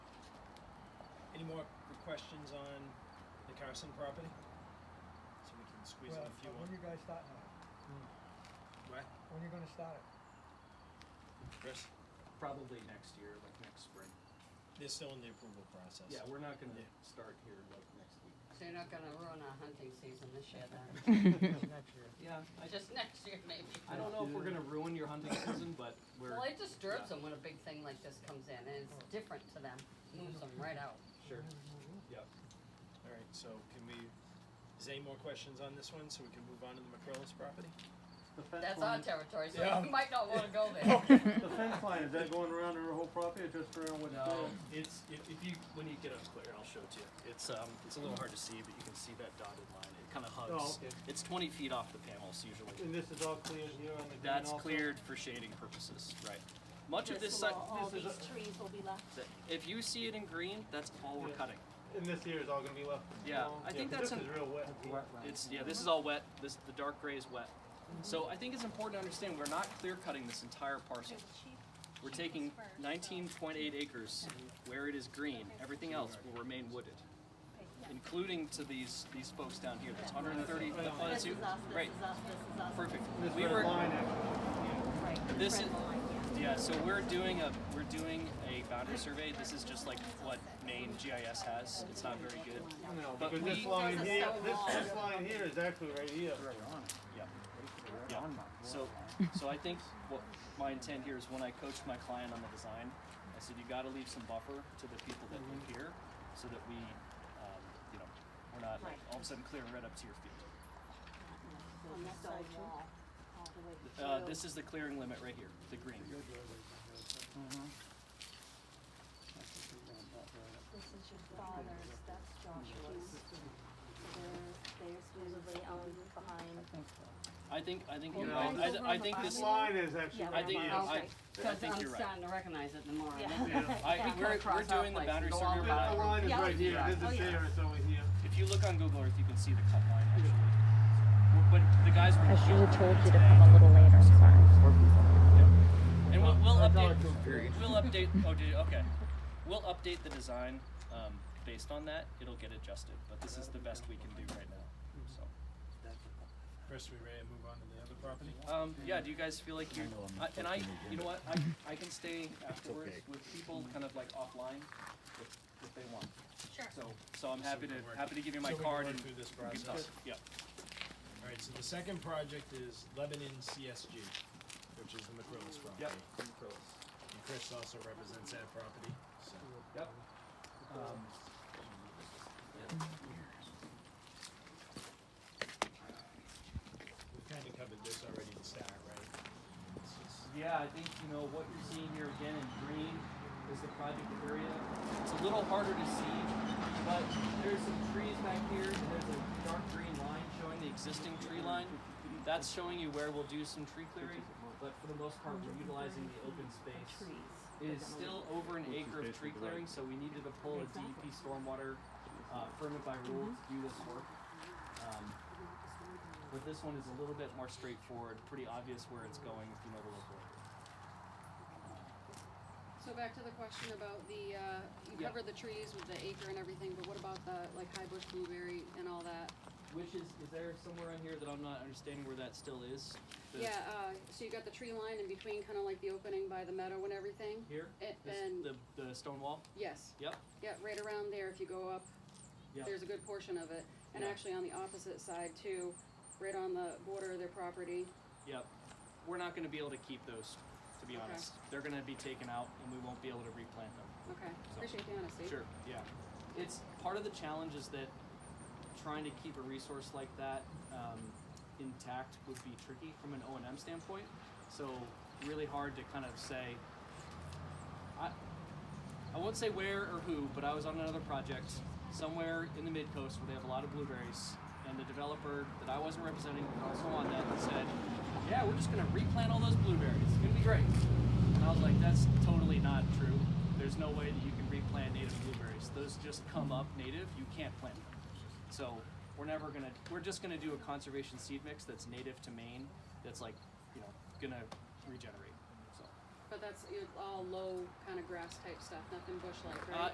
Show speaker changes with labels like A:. A: Any more questions on the Carson property? So we can squeeze in
B: Well,
A: a few
B: When
A: more.
B: you guys starting on
A: Right,
B: it? When you gonna start it?
A: Chris?
C: Probably next year, like next spring.
A: They're still in the approval process.
C: Yeah, we're not gonna
A: Yeah.
C: start here like next week.
D: So you're not gonna ruin our hunting season this year then?
B: Next year.
C: Yeah, I just,
D: Just next year maybe?
C: I don't know if we're gonna ruin your hunting season, but we're,
D: Well, it disturbs them when a big thing like this comes in and it's different to them, moves them right out.
C: sure, yep.
A: All right, so can we, is there any more questions on this one, so we can move on to the McCrillis property?
E: The fence
D: That's our
E: line,
D: territory,
A: Yeah.
D: so you might not wanna go there.
E: the fence line, is that going around her whole property or just around what's
C: No,
E: there?
C: it's,
F: If, if you, when you get up clear, I'll show it to you. It's, um, it's a little hard to see, but you can see that dotted line. It kind of hugs.
E: Oh, okay.
F: It's 20 feet off the panels usually.
E: And this is all cleared here on the green
F: That's
E: also?
F: cleared for shading purposes, right? Much of this Oh,
G: This
F: site,
G: will, all
E: this is
G: these trees will be left.
F: if you see it in green, that's all we're
E: Yeah.
F: cutting.
E: And this here is all gonna be left?
F: Yeah,
E: alone?
F: I think
E: 'cause
F: that's
E: This
F: an-
E: is real wet. here.
F: It's yeah, this is all wet. This the dark gray is wet. So I think it's important to understand we're not clear cutting this entire parcel. We're taking 19.8 acres where it is green. Everything else will remain wooded, including to these these folks down here. That's 130. the- oh, that's
G: This
F: you.
G: is us, this
F: Right.
G: is us, this is us.
F: Perfect.
E: This
F: We
E: red
F: were,
E: line actually,
G: Right,
F: This
G: red
F: is-
G: line, yeah.
F: yeah, so we're doing a, we're doing a boundary survey. This is just like what Maine GIS has. It's not very good.
E: no,
F: But
E: because this
F: we-
E: line
D: This is
E: here,
D: so
E: this, this
D: long.
E: line here is actually right here.
F: Yeah. Yeah. So, so I think what my intent here is when I coached my client on the design, I said you got to leave some buffer to the people that live here, so that we, um, you know, we're not like, all of a sudden clearing right up to your feet.
G: On this side wall, all the way to.
F: Uh, this is the clearing limit right here, the green.
G: This is your father's, that's Joshua's. So There's, there's usually owned behind.
F: I think, I think
D: Well,
F: you're
D: no,
F: right. I,
D: it's over
F: th-
D: on
F: I
D: the
F: think
D: bottom.
F: this.
E: This line is actually
G: Yeah,
F: I
E: right
F: think
E: here.
F: you're. I,
D: Okay.
F: I
D: Cause
F: think
D: I'm
F: you're right.
D: starting to recognize it the more.
G: Yeah.
D: I'm looking.
F: I,
G: Yeah,
F: we're, we're
D: cross out
F: doing the
D: places,
F: boundary
D: go
F: survey.
D: on
E: The
F: by-
E: the line is
G: Yeah.
E: right here, this is
G: Oh, yeah.
E: there, it's over here.
F: If you look on Google Earth, you can see the cut line actually. But the guys were.
H: I should have told you to come a little later, I'm sorry.
F: And we'll, we'll update. We'll update. Oh, did you, okay. We'll update the design um, based on that. It'll get adjusted, but this is the best we can do right now. So,
A: Chris, we ready to move on to the other property?
F: um, yeah. Do you guys feel like you? I and I, you know what? I, I can stay afterwards with people, kind of like offline, if, if they want.
G: Sure.
F: So, so I'm happy to
A: we can work-
F: happy to give you my
A: so we can
F: card
A: work
F: and
A: through this
F: you can
A: process.
F: talk. Yeah.
A: All right, so the second project is Lebanon CSG, which is the McCrillis property.
F: Yep.
A: And Chris also represents that property, so.
F: Yep. Um,
A: We've kind of covered this already to start, right? It's just-
F: Yeah, I think you know what you're seeing here again in green is the project area. It's a little harder to see, but there's some trees back here. and There's a dark green line showing the existing tree line. That's showing you where we'll do some tree clearing, but for the most part, we're utilizing the open space.
G: Trees.
F: It is still over an acre of tree clearing, so we needed to pull a DEP stormwater uh, permit by rule to do this work. Um, but this one is a little bit more straightforward, pretty obvious where it's going if you know the local area.
I: So back to the question about the, uh, you
F: Yeah.
I: covered the trees with the acre and everything, but what about the, like, high bush blueberry and all that?
F: Which is, is there somewhere on here that I'm not understanding where that still is? The-
I: Yeah, uh, so you got the tree line in between, kinda like the opening by the meadow and everything?
F: Here?
I: A-
F: This-
I: and-
F: the, the stone wall?
I: Yes,
F: Yep.
I: yeah, right around there, if you go up,
F: Yeah.
I: there's a good portion of it. And
F: Yeah.
I: actually on the opposite side too, right on the border of their property.
F: Yep. We're not going to be able to keep those, to be
I: Okay.
F: honest. They're going to be taken out and we won't be able to replant them.
I: Okay, appreciate the honesty.
F: Sure, yeah. It's part of the challenge is that trying to keep a resource like that um, intact would be tricky from an O and M standpoint. So really hard to kind of say. I I won't say where or who, but I was on another project somewhere in the mid coast where they have a lot of blueberries, and the developer that I wasn't representing but also on that said, "Yeah, we're just gonna replant all those blueberries. It's gonna be great." And I was like, that's totally not true. There's no way that you can replant native blueberries. Those just come up native. You can't plant them. So we're never gonna. We're just gonna do a conservation seed mix that's native to Maine. That's like, you know, gonna regenerate. So
I: But that's, you know, all low kinda grass type stuff, nothing bush-like, right?
F: uh,